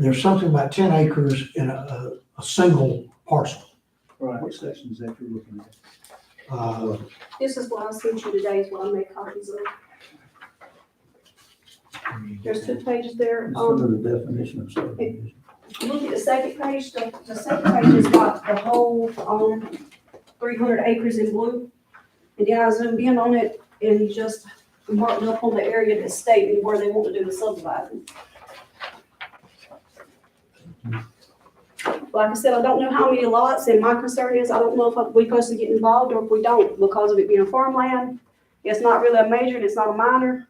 There's something about ten acres in a, a, a single parcel. Right, what section is that you're looking at? Uh, This is what I sent you today, is what I made copies of. There's two pages there. It's Um, under the definition of subdivision. look at the second page, the, the second page has got the whole, um, three hundred acres in blue. And then I zoomed in on it and just marked up on the area that's stating where they want to do the subdividing. Like I said, I don't know how many lots, and my concern is, I don't know if I- we supposed to get involved or if we don't, because of it being farmland. It's not really a major, and it's not a minor.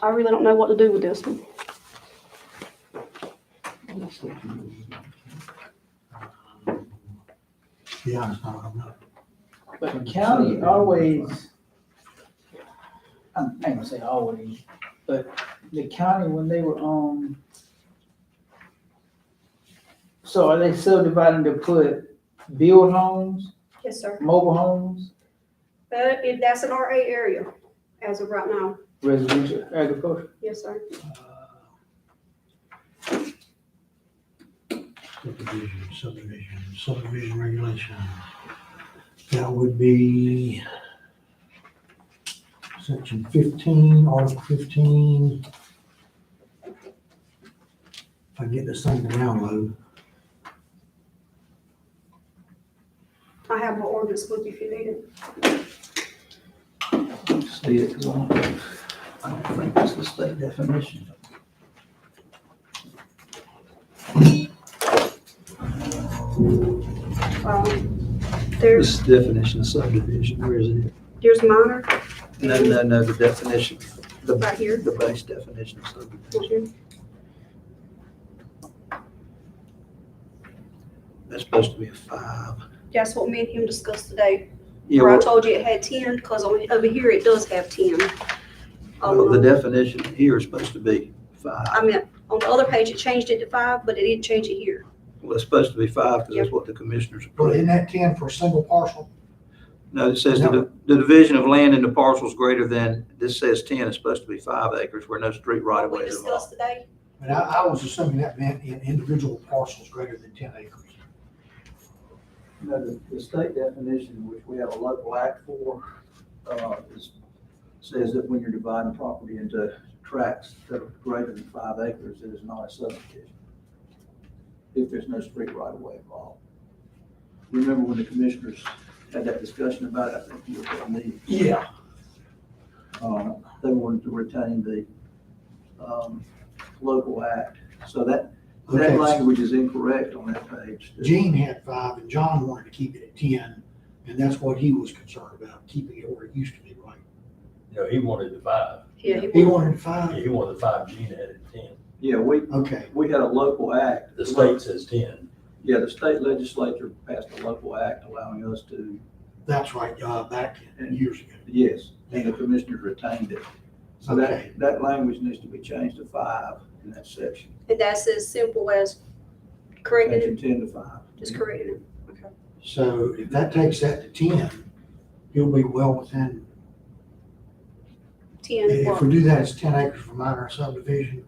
I really don't know what to do with this one. be honest, I don't know. But the county always, I'm not gonna say always, but the county, when they were on, so are they subdividing to put build homes, Yes, sir. mobile homes, But if Uh, that's an RA area as of right now, residential agriculture? yes, sir. uh, Subdivision, subdivision, subdivision regulation. That would be section fifteen, article fifteen. If I get this thing to download, I have my ordinance book if you need it. See it, 'cause I don't, I don't think that's the state definition. Um, This there's, is definition of subdivision, where is it? there's minor No, no, no, the definition, the, right here. the base definition of subdivision. That's supposed to be a five. That's what me and him discussed today. Yeah, Where I well, told you it had ten, because on, over here it does have ten. well, the Um, definition here is supposed to be five. I meant, on the other page, it changed it to five, but it didn't change it here. Well, it's supposed to be five because that's what the commissioners but approved. isn't that ten for a single parcel? No, it says the, the division of land into parcels greater than, this says ten, it's supposed to be five acres where no street right of What way we is involved. discussed today, And I, I was assuming that meant in individual parcels greater than ten acres. No, the, the state definition, which we have a local act for, uh, is, says that when you're dividing property into tracts that are greater than five acres, it is not a subdivision. If there's no street right of way involved. Remember when the commissioners had that discussion about it, I think you were at me, Yeah. uh, they wanted to retain the, um, local act. So that, Okay. that language is incorrect on that page. Gene had five and John wanted to keep it at ten, and that's what he was concerned about, keeping it where it used to be, right? No, he wanted the five. yeah, he He wanted- wanted Yeah, five, He wanted the five, Gene had it ten. Yeah, we, okay, we had a local act. The state says ten. Yeah, the state legislature passed a local act allowing us to, that's right, uh, back years ago. yes, and the commissioners retained it. So Okay. that, that language needs to be changed to five in that section, and that's as simple as correcting section it, ten to five. just correcting it. So if that takes that to ten, he'll be well within, Ten, if for we do that, it's ten acres for minor subdivision,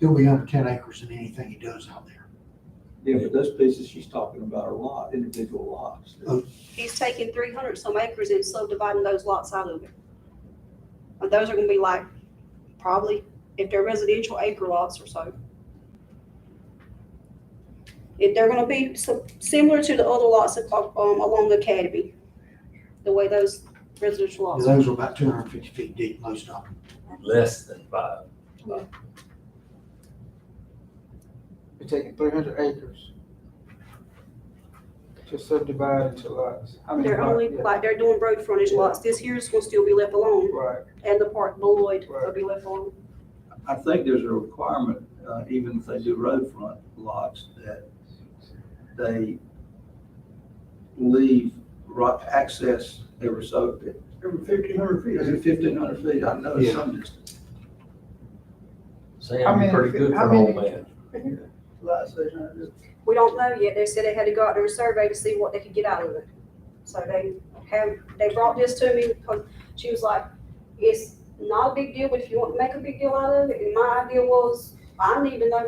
he'll be under ten acres in anything he does out there. Yeah, but those pieces she's talking about are lot, individual lots. Oh. he's taking three hundred some acres and subdividing those lots out of it. And those are gonna be like, probably, if they're residential acre lots or so. If they're gonna be so- similar to the other lots that, um, along Academy, the way those residential lots. are. Those are about two hundred and fifty feet deep, most of them. Less than five. We're taking three hundred acres to subdivide into lots. I mean, They're lot- only, yeah, like, they're doing road frontage lots, this here's gonna still be left alone, Right, and the part Lloyd will be left alone. I think there's a requirement, uh, even if they do road front lots, that they leave right access every so, every fifteen hundred feet, is it fifteen hundred feet? I know it's some distance. I Sam, mean, you're pretty good I for an old mean- man. Lot section, I just- We don't know yet. They said they had to go out there and survey to see what they could get out of it. So they have, they brought this to me because she was like, it's not a big deal, but if you want to make a big deal out of it, and my idea was, I don't even know